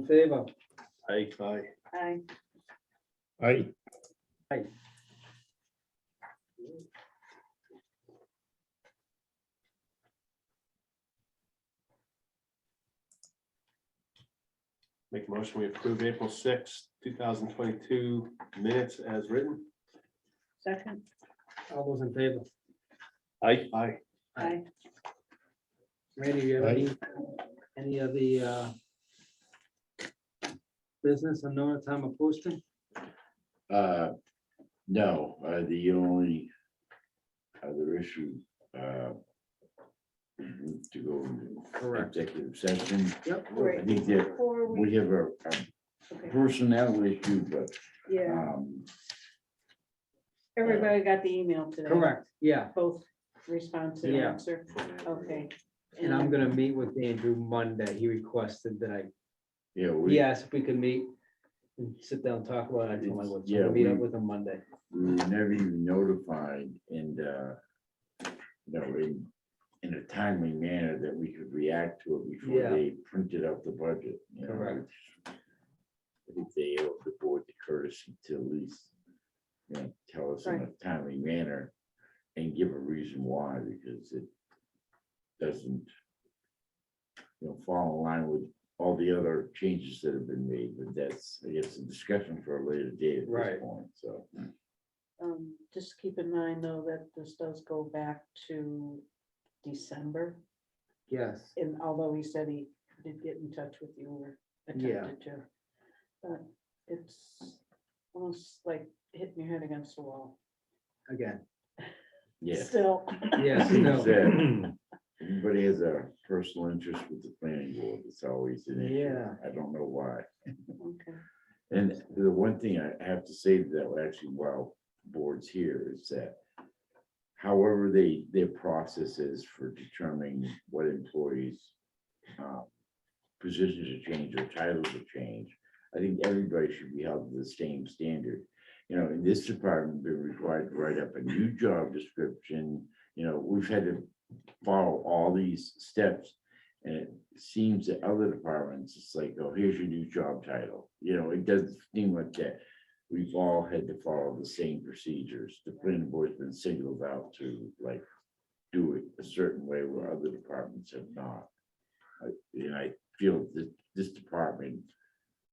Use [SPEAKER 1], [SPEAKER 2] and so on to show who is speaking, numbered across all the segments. [SPEAKER 1] in favor?
[SPEAKER 2] Aye.
[SPEAKER 3] Aye.
[SPEAKER 4] Aye.
[SPEAKER 2] Make a motion, we approve April sixth, two thousand twenty-two minutes as written.
[SPEAKER 3] Second.
[SPEAKER 1] All those in favor?
[SPEAKER 2] Aye. Aye.
[SPEAKER 3] Aye.
[SPEAKER 1] Randy, you have
[SPEAKER 4] Aye.
[SPEAKER 1] any, any of the uh, business unknown at time of posting?
[SPEAKER 5] Uh, no, uh, the only other issue, uh, to go into
[SPEAKER 1] Correct.
[SPEAKER 5] executive session,
[SPEAKER 1] Yep.
[SPEAKER 5] I think that
[SPEAKER 3] Four
[SPEAKER 5] we
[SPEAKER 3] weeks.
[SPEAKER 5] have a a
[SPEAKER 3] Okay.
[SPEAKER 5] personnel issue, but,
[SPEAKER 1] uh,
[SPEAKER 3] Yeah,
[SPEAKER 5] um,
[SPEAKER 3] everybody got the email today.
[SPEAKER 1] Correct, yeah.
[SPEAKER 3] Both response and
[SPEAKER 1] Yeah.
[SPEAKER 3] answer. Okay.
[SPEAKER 1] And I'm gonna meet with Andrew Monday. He requested that I,
[SPEAKER 5] yeah, we,
[SPEAKER 1] he asked if we could meet and sit down and talk about it. I told him I would, so
[SPEAKER 5] Yeah,
[SPEAKER 1] we'll meet up
[SPEAKER 5] we-
[SPEAKER 1] with him Monday.
[SPEAKER 5] we were never even notified and, uh, you know, in, in a timely manner that we could react to it before
[SPEAKER 1] Yeah.
[SPEAKER 5] they printed out the budget. you know,
[SPEAKER 1] Correct.
[SPEAKER 5] which I think they owe the board the courtesy to at least, you know, tell us in a timely manner and give a reason why, because it doesn't, you know, fall in line with all the other changes that have been made, but that's, I guess, a discussion for a later date at this
[SPEAKER 1] Right.
[SPEAKER 5] point, so.
[SPEAKER 3] Um, just keep in mind though that this does go back to December.
[SPEAKER 1] Yes,
[SPEAKER 3] And although he said he did get in touch with you or
[SPEAKER 1] Yeah.
[SPEAKER 3] attempted to. But it's almost like hitting your head against the wall.
[SPEAKER 1] again,
[SPEAKER 5] Yeah.
[SPEAKER 3] Still.
[SPEAKER 1] yes,
[SPEAKER 5] Seems
[SPEAKER 1] no,
[SPEAKER 5] that Everybody has a personal interest with the planning board. It's always an issue.
[SPEAKER 1] Yeah.
[SPEAKER 5] I don't know why.
[SPEAKER 3] Okay.
[SPEAKER 5] And the one thing I have to say that will actually while boards here is that however they, their process is for determining what employees uh, positions are changed or titles are changed, I think everybody should be held to the same standard. You know, in this department, they're required to write up a new job description. You know, we've had to follow all these steps. And it seems that other departments, it's like, oh, here's your new job title. You know, it doesn't seem like that. We've all had to follow the same procedures. The planning board's been singled out to like do it a certain way where other departments have not. I- And I feel that this department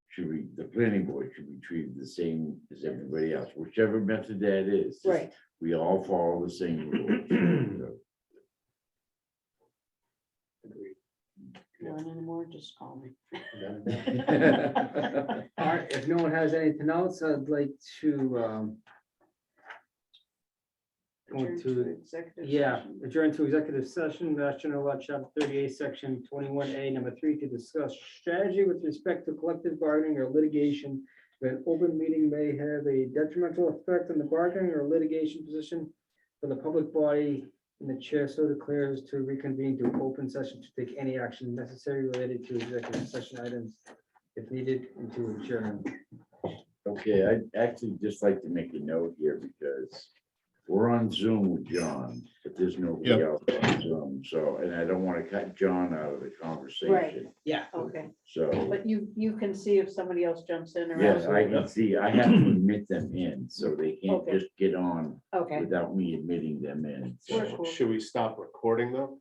[SPEAKER 5] should be, the planning board should be treated the same as everybody else, whichever method that is. just
[SPEAKER 3] Right.
[SPEAKER 5] We all follow the same rules.
[SPEAKER 3] Want any more? Just call me.
[SPEAKER 5] So.
[SPEAKER 1] all right, if no one has anything else, I'd like to, um, Going
[SPEAKER 3] Adjourn
[SPEAKER 1] to-
[SPEAKER 3] executive
[SPEAKER 1] yeah,
[SPEAKER 3] session.
[SPEAKER 1] adjourn to executive session, Mass General Law, Chapter thirty-eight, Section twenty-one A, number three, to discuss strategy with respect to collective bargaining or litigation. That open meeting may have a detrimental effect on the bargaining or litigation position for the public body. And the chair so declares to reconvene to open session to take any action necessary related to executive session items if needed and to adjourn.
[SPEAKER 5] Okay, I'd actually just like to make a note here because we're on Zoom with John, but there's nobody else on Zoom, so, and I don't want to cut John out of the conversation.
[SPEAKER 1] Yeah.
[SPEAKER 3] Okay,
[SPEAKER 5] So,
[SPEAKER 3] but you, you can see if somebody else jumps in or.
[SPEAKER 5] yes,
[SPEAKER 3] out.
[SPEAKER 5] I can see, I have to admit them in, so they can't
[SPEAKER 3] Okay.
[SPEAKER 5] just get on
[SPEAKER 3] Okay,
[SPEAKER 5] without me admitting them in.
[SPEAKER 3] Sure.
[SPEAKER 5] So
[SPEAKER 3] Cool.
[SPEAKER 2] Should we stop recording though?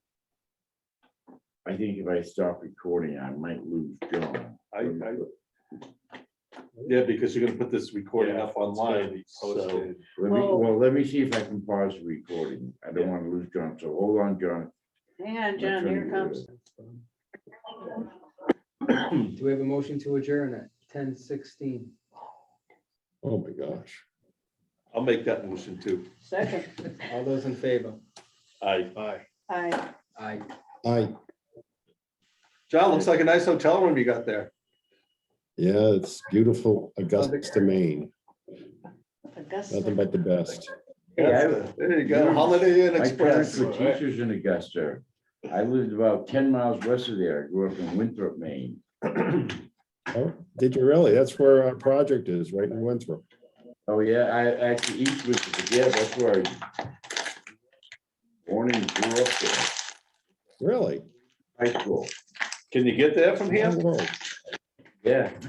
[SPEAKER 5] I think if I stop recording, I might lose John.
[SPEAKER 6] I, I, yeah, because you're gonna put this recording up online, so,
[SPEAKER 2] Posted.
[SPEAKER 5] Let me,
[SPEAKER 3] Well-
[SPEAKER 5] well, let me see if I can pause the recording. I don't want to lose John, so hold on, John.
[SPEAKER 3] hang on, John, here it comes.
[SPEAKER 1] Do we have a motion to adjourn at ten sixteen?
[SPEAKER 4] Oh, my gosh.
[SPEAKER 6] I'll make that motion too.
[SPEAKER 3] Second,
[SPEAKER 1] All those in favor?
[SPEAKER 6] I,
[SPEAKER 2] Aye.
[SPEAKER 3] I.
[SPEAKER 1] Aye.
[SPEAKER 4] Aye.
[SPEAKER 6] John, looks like a nice hotel room you got there.
[SPEAKER 4] Yeah, it's beautiful Augusta, Maine.
[SPEAKER 3] Augusta.
[SPEAKER 4] Nothing but the best.
[SPEAKER 5] Hey, I-
[SPEAKER 6] That's the- There you go, Holiday Inn
[SPEAKER 5] My parents
[SPEAKER 6] Express.
[SPEAKER 5] were teachers in Augusta. I lived about ten miles west of there. I grew up in Winthrop, Maine.
[SPEAKER 4] Oh, did you really? That's where our project is, right in Winthrop.
[SPEAKER 5] Oh, yeah, I actually east was, yeah, that's where I born and grew up there,
[SPEAKER 4] Really?
[SPEAKER 5] high school.
[SPEAKER 6] Can you get there from
[SPEAKER 4] Oh,
[SPEAKER 6] here?
[SPEAKER 4] whoa.
[SPEAKER 5] Yeah.